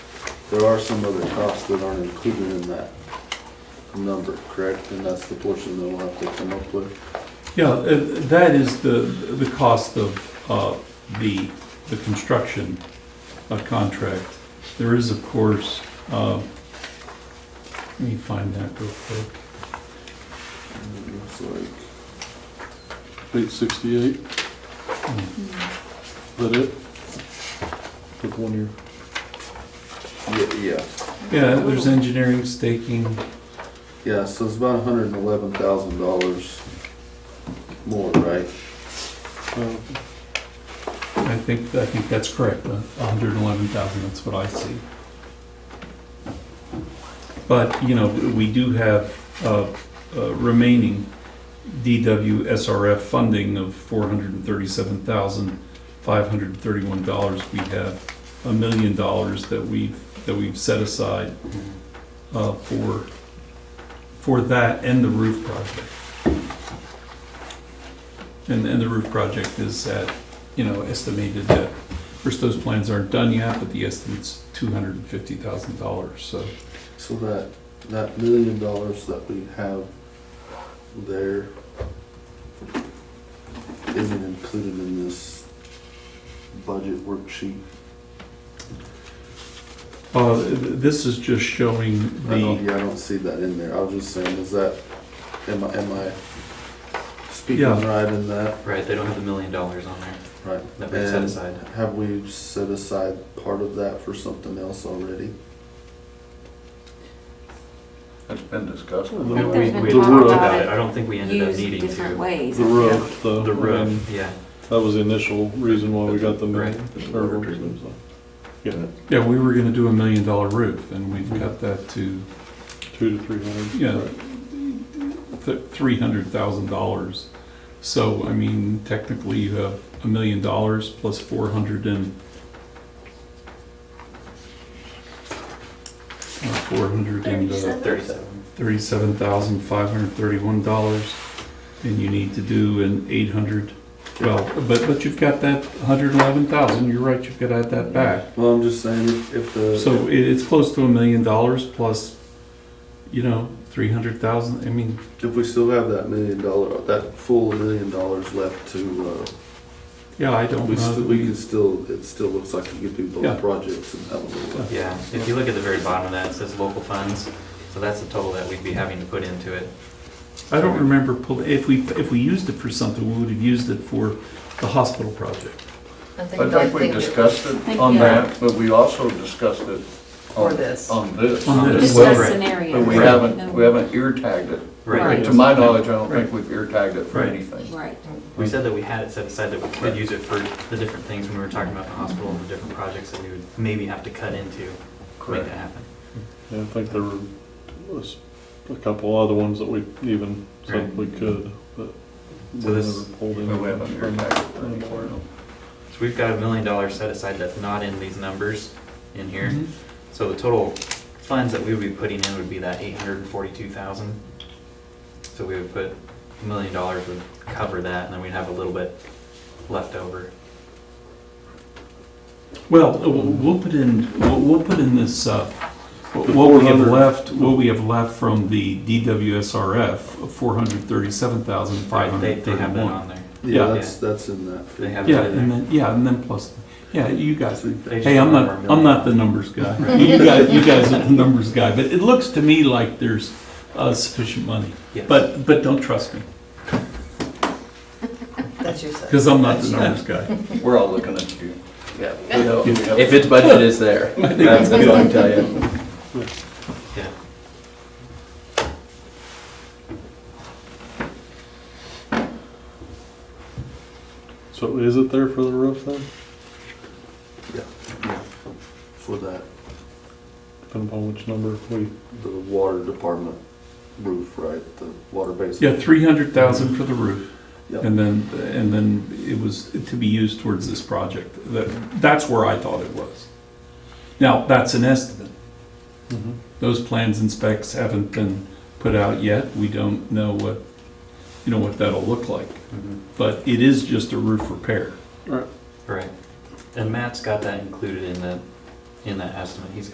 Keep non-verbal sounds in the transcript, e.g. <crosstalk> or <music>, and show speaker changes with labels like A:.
A: There are some other costs that aren't included in that number, correct? And that's the portion that we'll have to come up with.
B: Yeah, uh, that is the, the cost of uh, the, the construction uh, contract. There is, of course, uh, let me find that real quick.
A: It looks like,
C: Eight sixty-eight,
B: Oh,
C: is that it? Took one year.
A: yeah, yeah.
B: Yeah, there's engineering, staking,
A: Yeah, so it's about hundred and eleven thousand dollars more, right?
C: Uh,
B: I think, I think that's correct, a hundred and eleven thousand, that's what I see. But, you know, we do have, uh, uh, remaining DW SRF funding of four hundred and thirty-seven thousand, five hundred and thirty-one dollars. We have a million dollars that we've, that we've set aside, uh, for, for that and the roof project. And, and the roof project is at you know, estimated that, first, those plans aren't done yet, but the estimate's two hundred and fifty thousand dollars, so.
A: So that, that million dollars that we have there isn't included in this budget worksheet.
B: Uh, th- this is just showing
A: I don't,
B: the,
A: yeah, I don't see that in there. I was just saying, is that, am I, am I speaking
B: Yeah.
A: right in that?
D: Right, they don't have the million dollars on there
A: Right.
D: that we set
A: And
D: aside.
A: Have we set aside part of that for something else already?
E: It's been discussed.
D: We,
A: think
D: we
A: there's
F: been
D: we
F: talk
D: talked
F: about
D: about
F: it
D: it, I don't think we ended up
F: used
D: needing
F: different
D: to.
F: ways.
C: The roof, the.
D: The
C: and
D: roof, yeah.
C: That was the initial reason why we got the
D: Right.
C: million. or
E: Water treatment.
B: yeah, we were gonna do a million dollar roof, and we've cut that to,
C: Two to three hundred.
B: yeah, th- three hundred thousand dollars. So, I mean, technically, you have a million dollars plus four hundred and uh, four hundred and, uh,
D: Thirty-seven.
B: thirty-seven thousand five hundred thirty-one dollars, and you need to do an eight hundred, well, but, but you've got that hundred eleven thousand, you're right, you've got to add that back.
A: Well, I'm just saying, if- if the.
B: So it, it's close to a million dollars plus, you know, three hundred thousand, I mean,
A: If we still have that million dollar, that full million dollars left to,
B: yeah, I
A: uh,
B: don't
A: we still, we
B: know.
A: can still, it still looks like we could do
B: Yeah.
A: both projects and have a little.
D: Yeah, if you look at the very bottom of that, it says local funds, so that's the total that we'd be having to put into it.
B: I don't remember, pull- if we, if we used it for something, we would have used it for the hospital project.
G: I
E: I think we discussed it
F: think-
E: on
F: yeah.
E: that, but we also discussed it on,
G: For this.
E: on this.
B: On this.
F: Just
B: Well,
F: a
D: right.
E: But we
F: scenario.
E: haven't, we haven't ear tagged it.
F: Right.
D: Right,
E: To my knowledge, I don't
B: Right.
E: think we've ear tagged it for
B: Right.
E: anything.
F: Right.
D: we said that we had it set aside that we could use it for the different things when we were talking about the hospital and the different projects that we would maybe have to cut into to make
E: Correct.
D: that happen.
C: Yeah, I think there were, was a couple other ones that we even said
D: Right.
C: we could, but.
D: So
C: we
D: this-
C: never pulled
E: But
C: any
E: we haven't ear
C: from-
E: tagged it for anywhere else.
D: So we've got a million dollars set aside that's not in these numbers in
B: Mm-hmm.
D: here. So the total funds that we would be putting in would be that eight hundred and forty-two thousand. So we would put, a million dollars would cover that, and then we'd have a little bit left over.
B: Well, we'll- we'll put in, we'll, we'll put in this, uh, what we have
C: 400.
B: left, what we have left from the DWSRF, four hundred thirty-seven thousand five
D: They,
B: hundred
D: they have that
B: thirty-one.
D: on there.
A: Yeah,
B: Yeah.
A: that's, that's in that. figure.
D: They have
B: Yeah,
D: that in
B: and
D: there.
B: then, yeah, and then plus, yeah, you guys,
D: They just
B: hey, I'm not,
D: want more
B: I'm
D: million.
B: not the numbers guy. You guys, you guys are the numbers guy, but it looks to me like there's uh, sufficient money.
D: Yes.
B: But, but don't trust me,
G: That's your side.
B: because I'm not the
D: <laughs>
B: numbers guy.
E: We're all looking at you.
H: Yeah.
E: We know- we have-
H: If its budget is
B: <laughs>
H: there, that's good, I tell you.
D: Yeah.
C: So is it there for the roof then?
A: Yeah, For that,
C: Depending upon which number we,
A: the water department roof, right, the water basin.
B: Yeah, three hundred thousand for the roof.
A: Yep.
B: And then, and then it was to be used towards this project. That, that's where I thought it was. Now, that's an estimate.
C: mm-hmm.
B: Those plans and specs haven't been put out yet. We don't know what, you know, what that'll look like. But it is just a roof repair.
D: Right. And Matt's got that included in that, in that estimate. He's got